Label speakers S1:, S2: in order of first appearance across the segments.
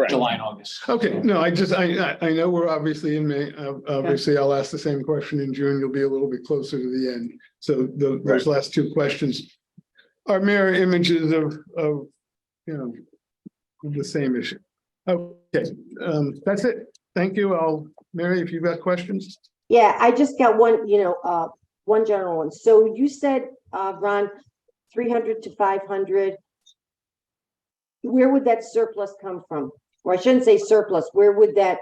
S1: Correct.
S2: July and August.
S3: Okay, no, I just, I, I, I know we're obviously in May, ob- obviously I'll ask the same question in June, you'll be a little bit closer to the end. So the, those last two questions are mirror images of, of, you know, the same issue. Okay, um, that's it. Thank you. I'll, Mary, if you've got questions?
S4: Yeah, I just got one, you know, uh, one general one. So you said, uh, Ron, three hundred to five hundred. Where would that surplus come from? Or I shouldn't say surplus, where would that,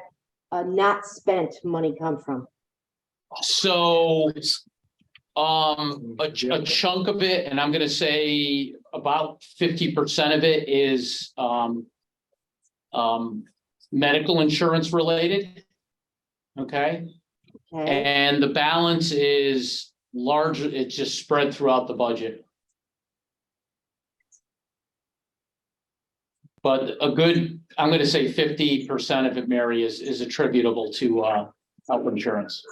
S4: uh, not spent money come from?
S2: So um, a, ch- a chunk of it, and I'm gonna say about fifty percent of it is um. Um, medical insurance related. Okay,
S4: Okay,
S2: and the balance is large, it's just spread throughout the budget. But a good, I'm gonna say fifty percent of it, Mary, is is attributable to uh health insurance.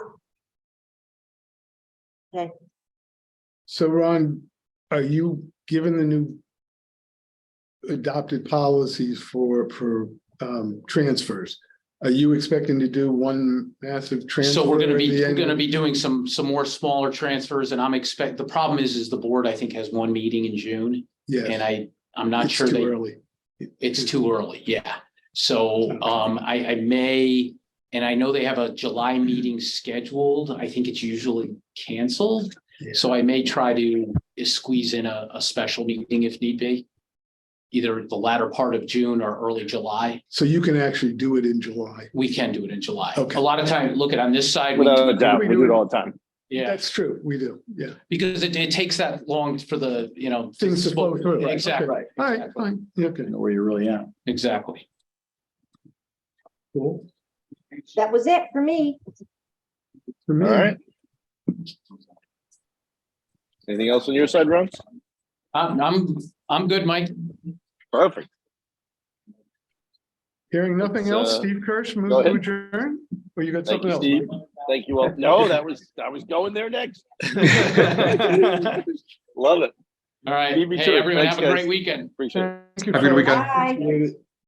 S3: So Ron, are you given the new adopted policies for, for, um, transfers? Are you expecting to do one massive transfer?
S2: So we're gonna
S3: at
S2: be,
S3: the
S2: we're
S3: end?
S2: gonna be doing some, some more smaller transfers and I'm expect, the problem is, is the board, I think, has one meeting in June. And
S3: Yes,
S2: I, I'm not
S3: it's
S2: sure
S3: too
S2: that,
S3: Early.
S2: it's too early, yeah. So, um, I, I may, and I know they have a July meeting scheduled. I think it's usually canceled.
S3: Yeah.
S2: So I may try to squeeze in a, a special meeting if need be. Either the latter part of June or early July.
S3: So you can actually do it in July.
S2: We can do it in July.
S3: Okay.
S2: A lot of time, look at on this side. we do-
S1: Without a doubt, we do it all the time.
S2: Yeah.
S3: That's true, we do, yeah.
S2: Because it, it takes that long for the, you know.
S3: Things to flow through. right, okay.
S2: Exactly,
S3: All right, fine, yeah, okay.
S1: Where you really at.
S2: exactly.
S3: Cool.
S4: that was it for me.
S3: For me,
S1: All right. Anything else on your side, Ron?
S2: I'm, I'm, I'm good, Mike.
S1: Perfect.
S3: Hearing nothing
S1: Let's,
S3: else,
S1: uh,
S3: Steve Kirsch, move
S1: go
S3: to
S1: ahead.
S3: adjourn, or you got
S1: Thank
S3: something
S1: you,
S3: else?
S1: Steve. Thank you all. No, that was, I was going there next. Love it.
S2: All right.
S1: Leave me to
S2: Hey,
S1: it.
S2: everyone,
S1: Thanks,
S2: have a great
S1: guys.
S2: weekend.
S1: Appreciate it.
S3: Mike? Thank you,
S5: Have a good
S3: Frank.
S5: weekend.
S4: Bye.
S3: Appreciate it.